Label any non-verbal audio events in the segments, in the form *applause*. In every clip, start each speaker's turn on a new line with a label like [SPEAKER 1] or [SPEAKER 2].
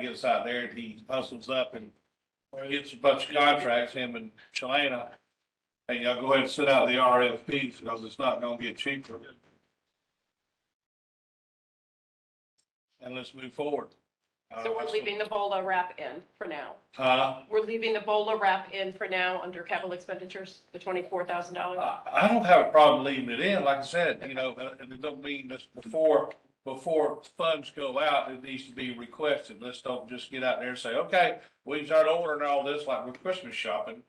[SPEAKER 1] gets out there and he hustles up and gets a bunch of contracts, him and Chalana. And y'all go ahead and send out the RFPs because it's not gonna get cheaper. And let's move forward. Uh,
[SPEAKER 2] So we're leaving the BOLA wrap in for now.
[SPEAKER 1] Huh?
[SPEAKER 2] We're leaving the BOLA wrap in for now under capital expenditures, the twenty-four thousand dollars.
[SPEAKER 1] I, I don't have a problem leaving it in, like I said, you know, uh, and it don't mean that before, before funds go out, it needs to be requested. Let's don't just get out there and say, okay, we start ordering all this like with Christmas shopping.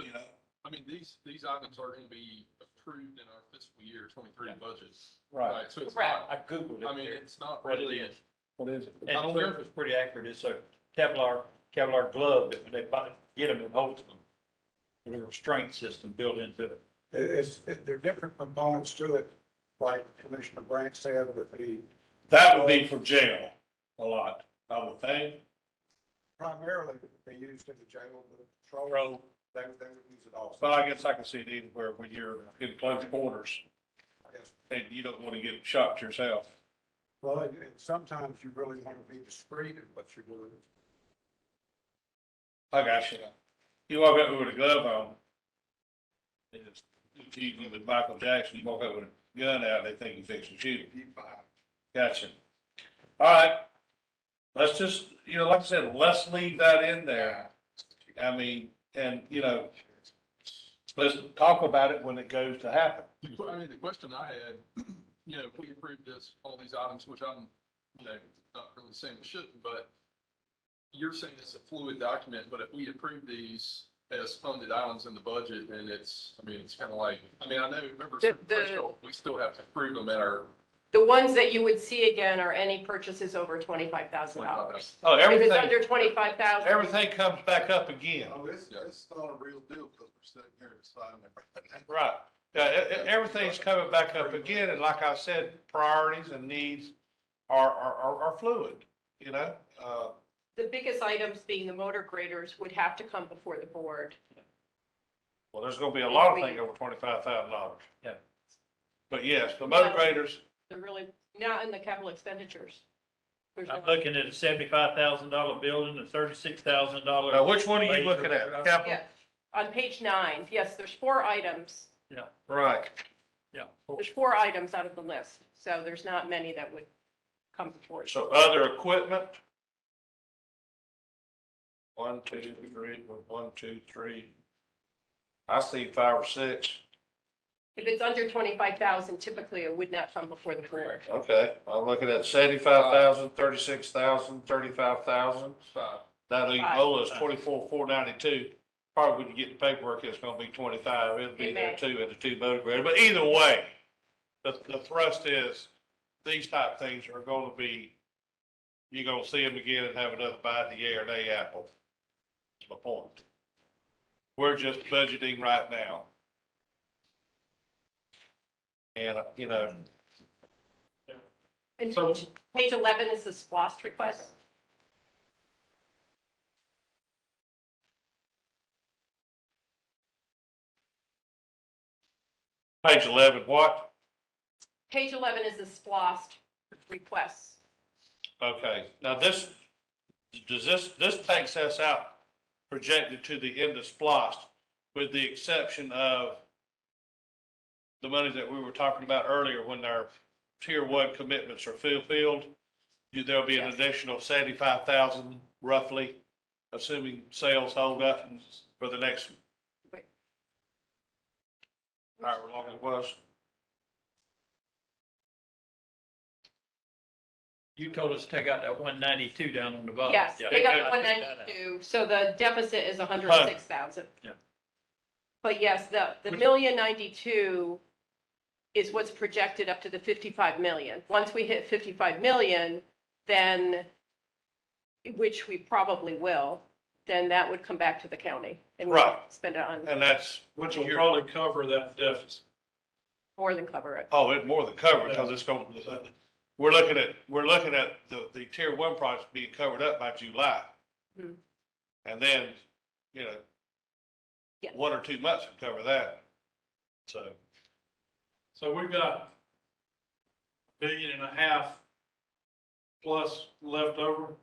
[SPEAKER 1] You know,
[SPEAKER 3] I mean, these, these items are gonna be approved in our fiscal year twenty-three budget.
[SPEAKER 1] right,
[SPEAKER 3] So it's
[SPEAKER 2] Correct.
[SPEAKER 3] not,
[SPEAKER 4] I Googled it.
[SPEAKER 3] I mean, it's not
[SPEAKER 4] Right, it
[SPEAKER 3] really,
[SPEAKER 4] is.
[SPEAKER 1] what is it?
[SPEAKER 4] And Sheriff was pretty accurate. It's a Kevlar, Kevlar glove that when they buy, get them, it holds them. With a restraint system built into it.
[SPEAKER 5] It- It's, it- there are different components to it, like Commissioner Branch said, with the
[SPEAKER 1] That would be for jail a lot, I would think.
[SPEAKER 5] primarily they used in the jail, the patrol,
[SPEAKER 1] Bro,
[SPEAKER 5] they, they would use it also.
[SPEAKER 1] But I guess I can see it anywhere when you're in close quarters and you don't want to get shot yourself.
[SPEAKER 5] Well, and and sometimes you really want to be discreet in what you're doing.
[SPEAKER 1] I got you. You walk up with a glove on. It's, it's even with Michael Jackson, you walk up with a gun out, they think you're fixing to shoot him. Gotcha. All right. Let's just, you know, like I said, let's leave that in there. I mean, and, you know, let's talk about it when it goes to happen.
[SPEAKER 3] Well, I mean, the question I had, *clears throat* you know, if we approved this, all these items, which I'm, you know, not really saying we shouldn't, but you're saying it's a fluid document, but if we approve these as funded items in the budget, and it's, I mean, it's kind of like, I mean, I know, remember,
[SPEAKER 2] The- the-
[SPEAKER 3] threshold, we still have to approve them at our
[SPEAKER 2] The ones that you would see again are any purchases over twenty-five thousand dollars.
[SPEAKER 1] Oh,
[SPEAKER 2] If it's
[SPEAKER 1] everything,
[SPEAKER 2] under twenty-five thousand,
[SPEAKER 1] everything comes back up again.
[SPEAKER 6] Oh, this, this is not a real deal because we're sitting here deciding. everything.
[SPEAKER 1] Right. Yeah, e- e- everything's coming back up again, and like I said, priorities and needs are, are, are- are fluid, you know? Uh,
[SPEAKER 2] the biggest items being the motor graders would have to come before the board.
[SPEAKER 1] well, there's gonna be a lot of things over twenty-five thousand dollars.
[SPEAKER 4] Yeah.
[SPEAKER 1] But yes, the motor graders,
[SPEAKER 2] They're really not in the capital expenditures. There's
[SPEAKER 4] I'm
[SPEAKER 2] no-
[SPEAKER 4] looking at a seventy-five thousand dollar building, a thirty-six thousand dollar.
[SPEAKER 1] now, which one are you looking at? Capital?
[SPEAKER 2] Yeah. On page nine, yes, there's four items.
[SPEAKER 4] Yeah,
[SPEAKER 1] Right.
[SPEAKER 4] yeah.
[SPEAKER 2] There's four items out of the list, so there's not many that would come before. it.
[SPEAKER 1] So other equipment? One, two, three, one, two, three. I see five or six.
[SPEAKER 2] If it's under twenty-five thousand, typically it would not come before the board.
[SPEAKER 1] Okay, I'm looking at seventy-five thousand, thirty-six thousand, thirty-five thousand.
[SPEAKER 3] five.
[SPEAKER 1] That
[SPEAKER 2] Five.
[SPEAKER 1] Ebola is twenty-four, four ninety-two. Probably when you get the paperwork, it's gonna be twenty-five. It'll be
[SPEAKER 2] It
[SPEAKER 1] there
[SPEAKER 2] may.
[SPEAKER 1] too at the two motor grader. But either way, the, the thrust is these type things are gonna be, you're gonna see them again and have another bite of the air day apple. That's my point. We're just budgeting right now. And, uh, you know,
[SPEAKER 2] And
[SPEAKER 3] So-
[SPEAKER 2] page page eleven is the SPOS request.
[SPEAKER 1] page eleven, what?
[SPEAKER 2] Page eleven is the SPOS request.
[SPEAKER 1] Okay, now this, does this, this takes us out projected to the end of SPOS with the exception of the money that we were talking about earlier when our tier one commitments are fulfilled. you- There'll be an
[SPEAKER 2] Yes.
[SPEAKER 1] additional seventy-five thousand roughly, assuming sales hold up for the next
[SPEAKER 2] Wait.
[SPEAKER 1] however long it was.
[SPEAKER 4] You told us to take out that one ninety-two down on the bottom.
[SPEAKER 2] Yes,
[SPEAKER 4] Oh, Yeah.
[SPEAKER 2] they got
[SPEAKER 4] I
[SPEAKER 2] one
[SPEAKER 4] took that out.
[SPEAKER 2] ninety-two, so the deficit is hundred and six thousand.
[SPEAKER 4] Yeah.
[SPEAKER 2] But yes, the, the
[SPEAKER 1] Which-
[SPEAKER 2] million ninety-two is what's projected up to the fifty-five million. Once we hit fifty-five million, then, which we probably will, then that would come back to the county. and we'd
[SPEAKER 1] Right.
[SPEAKER 2] Spend it on,
[SPEAKER 1] And that's.
[SPEAKER 7] Which will probably cover that deficit.
[SPEAKER 2] more than cover it.
[SPEAKER 1] Oh, it more than covered, because it's going, we're looking at, we're looking at the, the tier one projects being covered up by July.
[SPEAKER 2] Mhm.
[SPEAKER 1] And then, you know,
[SPEAKER 2] Yeah.
[SPEAKER 1] one or two months would cover that. So,
[SPEAKER 7] So we've got a billion and a half plus left over.